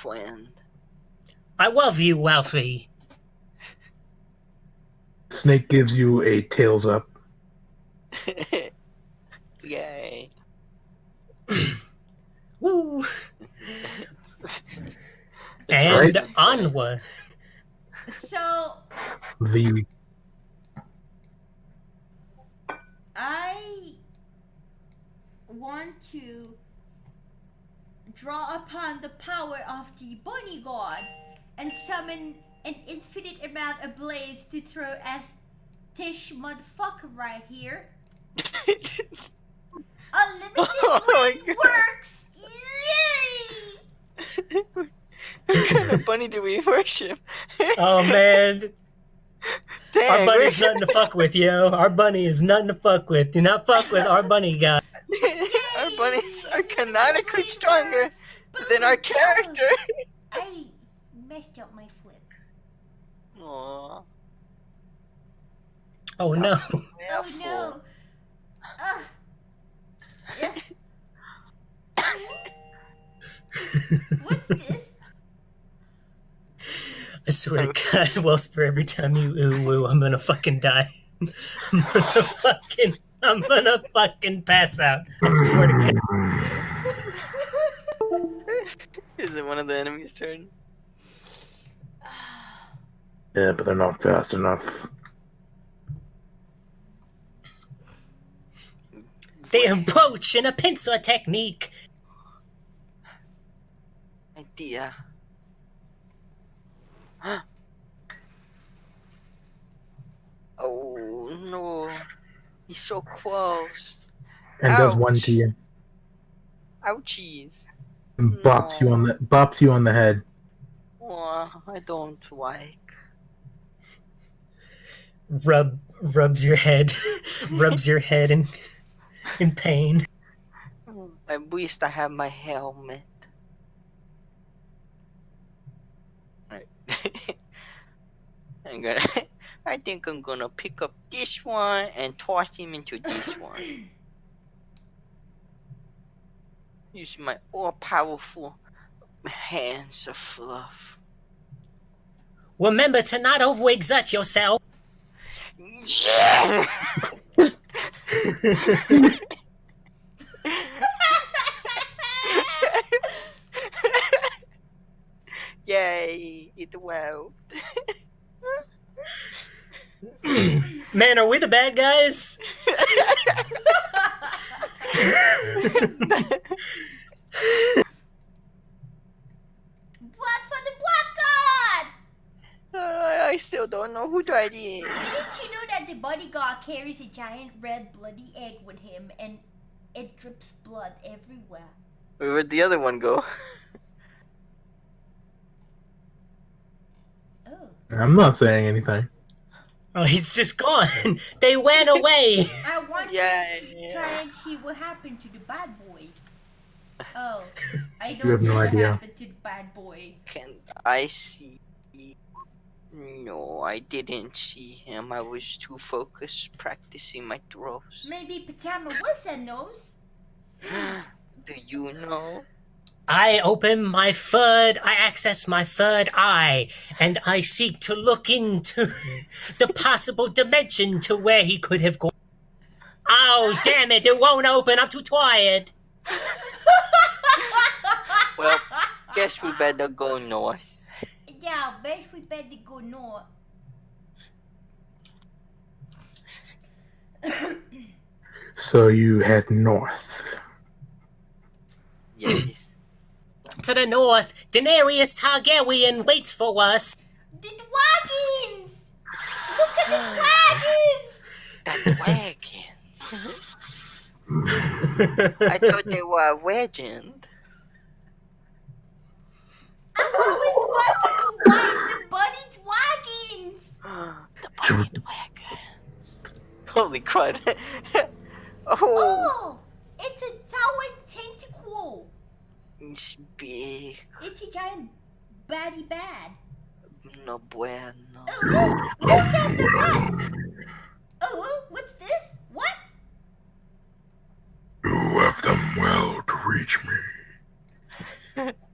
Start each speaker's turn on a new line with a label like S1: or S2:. S1: friend.
S2: I love you, Wealthy.
S3: Snake gives you a tails up.
S1: Yay.
S2: Woo!
S1: It's
S2: and
S1: right.
S2: onward.
S4: So
S3: The
S4: I want to draw upon the power of the bunny god and summon an infinite amount of blades to throw at Tish motherfucker right here. Unlimited
S1: Oh my
S4: blade works! Yay!
S1: what kind of bunny do we worship?
S2: Oh man, our
S1: Dang,
S2: bunny's
S1: we're-
S2: nothing to fuck with, yo. Our bunny is nothing to fuck with. Do not fuck with our bunny guy.
S1: our
S4: Yay!
S1: bunnies are
S4: Unlimited
S1: canonically
S4: blade
S1: stronger
S4: works!
S1: than our
S4: Boom!
S1: character.
S4: I messed up my flip.
S1: Aw,
S2: Oh no.
S4: Oh
S1: mouthful.
S4: no. Ugh. Ugh. What's this?
S2: I swear to God, Wellsper, every time you ooh woo, I'm gonna fucking die. I'm gonna fucking, I'm gonna fucking pass out. I swear to God.
S1: Is it one of the enemy's turn?
S3: yeah, but they're not fast enough.
S2: They approach in a pincer technique.
S1: Idea. oh no. He's so close.
S3: And does one
S1: Ouch.
S3: to you
S1: Ouchies.
S3: and bops you on the bops you on the head.
S1: Aw, I don't like.
S2: Rub, rubs your head, rubs your head in, in pain.
S1: At least I have my helmet. Right. I'm gonna. I think I'm gonna pick up this one and toss him into this one. Use my all-powerful hands of fluff.
S2: Remember to not overexert yourself.
S1: Yeah! Yay! It well.
S2: Man, are we the bad guys?
S4: Blood for the black god!
S1: I still don't know who that is.
S4: Didn't you know that the bodyguard carries a giant red bloody egg with him and it drips blood everywhere?
S1: Where'd the other one go?
S4: Oh.
S3: I'm not saying anything.
S2: Oh, he's just gone. They ran away.
S4: I want
S1: Yeah,
S4: to
S1: yeah.
S4: try and see what happened to the bad boy. Oh, I don't
S3: You have
S4: see
S3: no
S4: what
S3: idea.
S4: happened to the bad boy.
S1: Can I see? No, I didn't see him. I was too focused practicing my throws.
S4: Maybe Pajama Wilson knows.
S1: Do you know?
S2: I open my third, I access my third eye, and I seek to look into the possible dimension to where he could have gone. Oh, damn it, it won't open, I'm too tired.
S1: Well, guess we better go north.
S4: Yeah, bet we better go north.
S3: So you head north.
S1: Yes.
S2: To the north, Daenerys Targaryen waits for us.
S4: The wagons! Look at the wagons!
S1: That wagons. I thought they were a legend.
S4: I'm always wanted to ride the bunny wagons!
S1: the blind wagons. Holy crud. oh,
S4: Oh, it's a towering tentacle.
S1: it's big.
S4: It's a giant baddie bad.
S1: No bueno.
S4: Oh, oh, look at the rat. Oh, oh, what's this? What?
S3: You have done well to reach me.